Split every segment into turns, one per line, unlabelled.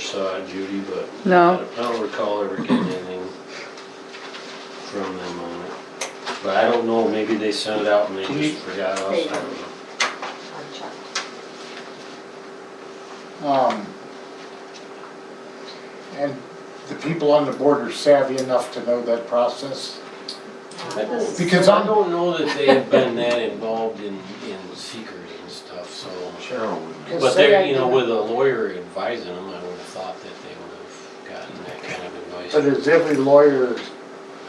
saw it, Judy, but I
No,
don't- I don't recall ever getting anything from them on it. But I don't know, maybe they sent it out and they just forgot us, I don't know.
Unchecked.
Um, and the people on the board are savvy enough to know that process.
Uh, this-
Because
I
I'm,
don't know that they have been that involved in, in secret and stuff, so.
Cheryl would be.
But they're, you know, with a lawyer advising them, I would have thought that they would have gotten that kind of advice.
But is every lawyer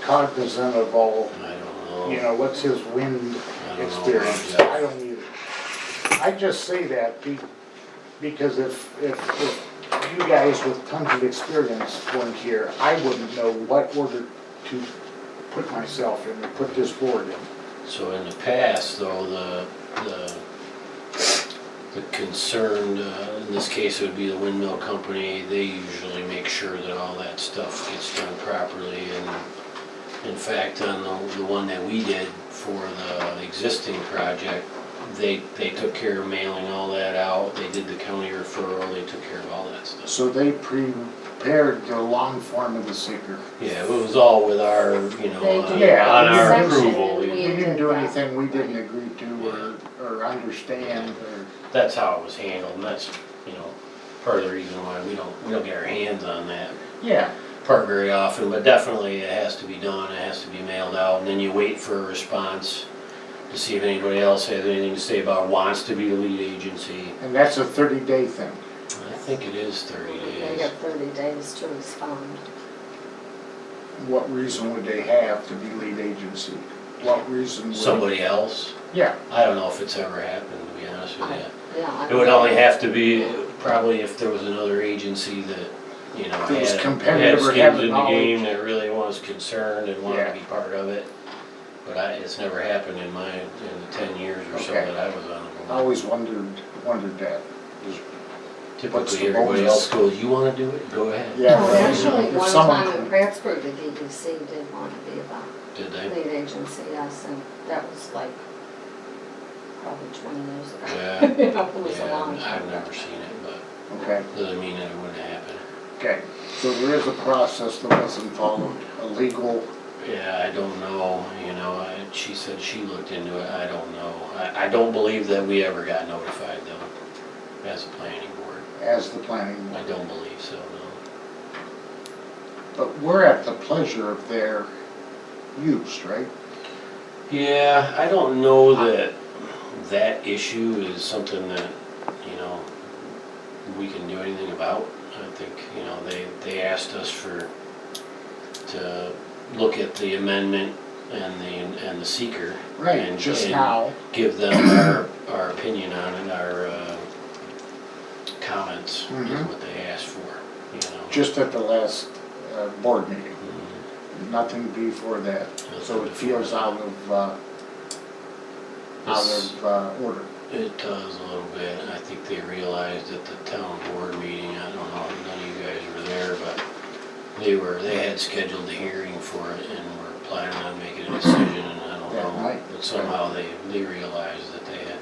cognizant of all,
I don't know.
you know, what's his wind
I don't know
experience?
about that.
I don't either. I just say that be, because if, if, if you guys with tons of experience weren't here, I wouldn't know what order to put myself in, or put this board in.
So in the past, though, the, the, the concerned, uh, in this case, it would be the windmill company, they usually make sure that all that stuff gets done properly, and in fact, on the, the one that we did for the existing project, they, they took care of mailing all that out, they did the county referral, they took care of all that stuff.
So they prepared the long form of the seeker.
Yeah, it was all with our, you
They
know, uh, on
did.
on our
Yeah.
approval.
Section,
We
we-
didn't do anything we didn't agree to or, or understand or.
that's how it was handled, and that's, you know, part of the reason why we don't, we don't get our hands on that
Yeah.
part very often, but definitely it has to be done, it has to be mailed out, and then you wait for a response to see if anybody else has anything to say about wants to be the lead agency.
And that's a thirty day thing.
I think it is thirty
They
days.
have thirty days to respond.
What reason would they have to be lead agency? What reason would?
Somebody else,
Yeah,
I don't know if it's ever happened, to be honest with you.
Yeah. I
It would
don't-
only have to be probably if there was another agency that, you know,
That
had,
was
had
competitive or
skins
had
in the
knowledge.
game that really was concerned and wanted
Yeah.
to be part of it. But I, it's never happened in my, in the ten years or so
Okay. Oh,
that I was on the board.
I always wondered, wondered that. What's
Typically,
the
everybody
bonus?
else goes, you wanna do it, go ahead.
Yeah.
No,
but
actually,
if
one
someone-
time in Prattsburg, the DDC did want to be the
Did they?
lead agency, yes, and that was like probably twenty years ago.
Yeah.
You know, It was a
Yeah,
long
I've
time.
never seen it, but
Okay,
doesn't mean that it wouldn't happen.
okay. So there is a process that wasn't followed, a legal,
Yeah, I don't know, you know, I, she said she looked into it, I don't know. I, I don't believe that we ever got notified though, as a planning board.
as the planning board.
I don't believe so, no.
But we're at the pleasure of their use, right?
Yeah, I don't know that that issue is something that, you know, we can do anything about. I think, you know, they, they asked us for, to look at the amendment and the, and the seeker.
Right,
and-
just
and
now.
Give them our, our opinion on it, our, uh, comments is
Mhm.
what they asked for, you know.
just at the last uh, board meeting,
Mhm,
nothing before that. So it feels out of, uh, out
It's-
of uh, order.
It does a little bit. I think they realized at the town board meeting, I don't know, if none of you guys were there, but they were, they had scheduled the hearing for it and were planning on making a decision and I don't
That
know.
night.
But somehow they, they realized that they had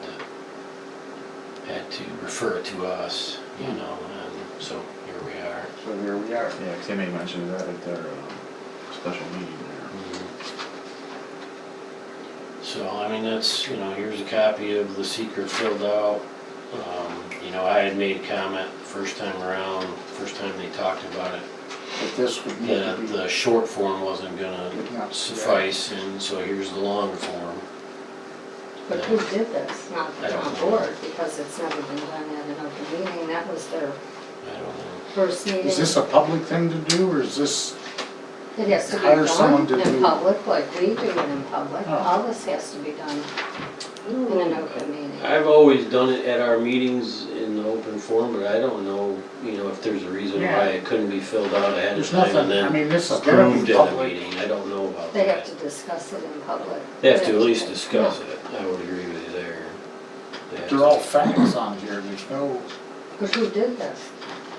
to, had to refer it to us, you
Hmm.
know, and so here we are.
So here we are.
Yeah, 'cause they may mention that at their uh, special meeting there.
Mm-hmm. So, I mean, that's, you know, here's a copy of the seeker filled out. Um, You know, I had made a comment first time around, first time they talked about it,
But this would need to
that
be,
the short form wasn't gonna
would not suffice.
suffice, and so here's the long form.
But who did this? Not the
I don't
town
know.
board, because it's never been done at an open meeting. That was their
I don't know.
first meeting.
Is this a public thing to do, or is this,
It has to be
Hire someone to
done in
do-
public, like we do it in public.
Oh.
All this has to be done in an open meeting.
I've always done it at our meetings in the open form, but I don't know, you know, if there's a reason
Yeah.
why it couldn't be filled out ahead of
there's
time and
nothing, I
then
mean, this is gonna
approved
be
at a
public.
meeting. I don't know about that.
They have to discuss it in public.
They have to at least discuss it, I would agree with you there. They have
They're
to-
all facts on here, there's no,
But who did this?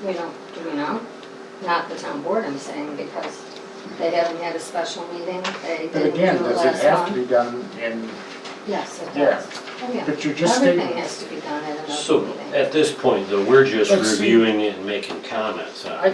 We don't, do we know? Not the town board, I'm saying, because they haven't had a special meeting. They
but
didn't
again,
do it
does it
last
have to
month.
be done in
Yes, it
Yeah.
does. Oh, yeah.
But you're just stating.
Everything has to be done at an
So
open meeting.
at this point, though, we're just
Let's see.
reviewing it and making comments on it.